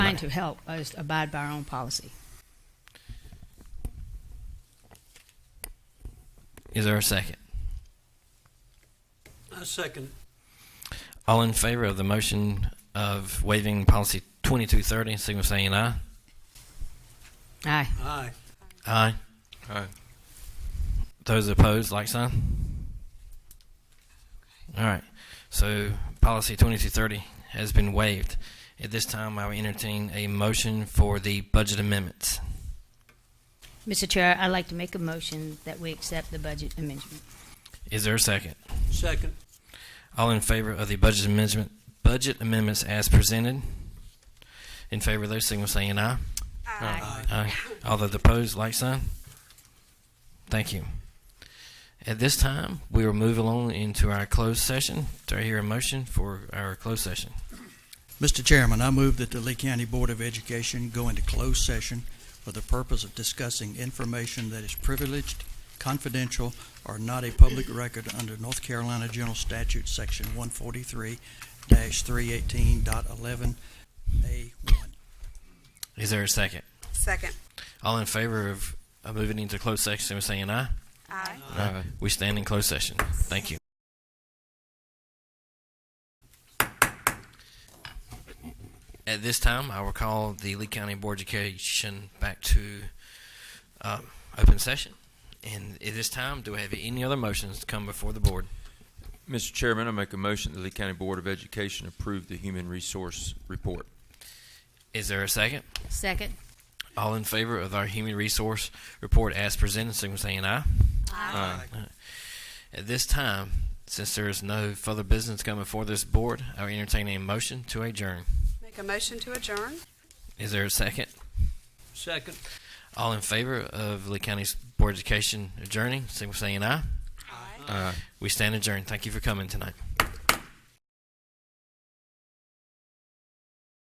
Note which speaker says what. Speaker 1: trying to help us abide by our own policy.
Speaker 2: Is there a second?
Speaker 3: I second.
Speaker 2: All in favor of the motion of waiving policy 2230, signal saying aye.
Speaker 1: Aye.
Speaker 3: Aye.
Speaker 2: Aye.
Speaker 4: Aye.
Speaker 2: Those opposed, like sign. All right. So policy 2230 has been waived. At this time, I will entertain a motion for the budget amendments.
Speaker 1: Mr. Chair, I'd like to make a motion that we accept the budget amendment.
Speaker 2: Is there a second?
Speaker 3: Second.
Speaker 2: All in favor of the budget amendment, budget amendments as presented? In favor of those, signal saying aye.
Speaker 3: Aye.
Speaker 2: Aye. All those opposed, like sign. Thank you. At this time, we will move along into our closed session. Do I hear a motion for our closed session?
Speaker 3: Mr. Chairman, I move that the Lee County Board of Education go into closed session for the purpose of discussing information that is privileged, confidential, or not a public record under North Carolina General Statute, Section 143-318.11A1.
Speaker 2: Is there a second?
Speaker 5: Second.
Speaker 2: All in favor of of moving into closed session, saying aye?
Speaker 5: Aye.
Speaker 2: Aye. We stand in closed session. Thank you. At this time, I will call the Lee County Board of Education back to um, open session. And at this time, do we have any other motions to come before the board?
Speaker 4: Mr. Chairman, I make a motion that the Lee County Board of Education approve the Human Resource Report.
Speaker 2: Is there a second?
Speaker 1: Second.
Speaker 2: All in favor of our human resource report as presented, signal saying aye.
Speaker 4: Aye.
Speaker 2: At this time, since there is no further business coming before this board, I will entertain a motion to adjourn.
Speaker 5: Make a motion to adjourn?
Speaker 2: Is there a second?
Speaker 3: Second.
Speaker 2: All in favor of Lee County's Board of Education adjourning, signal saying aye. Uh,
Speaker 5: Aye.
Speaker 4: Aye.
Speaker 2: We stand adjourned. Thank you for coming tonight.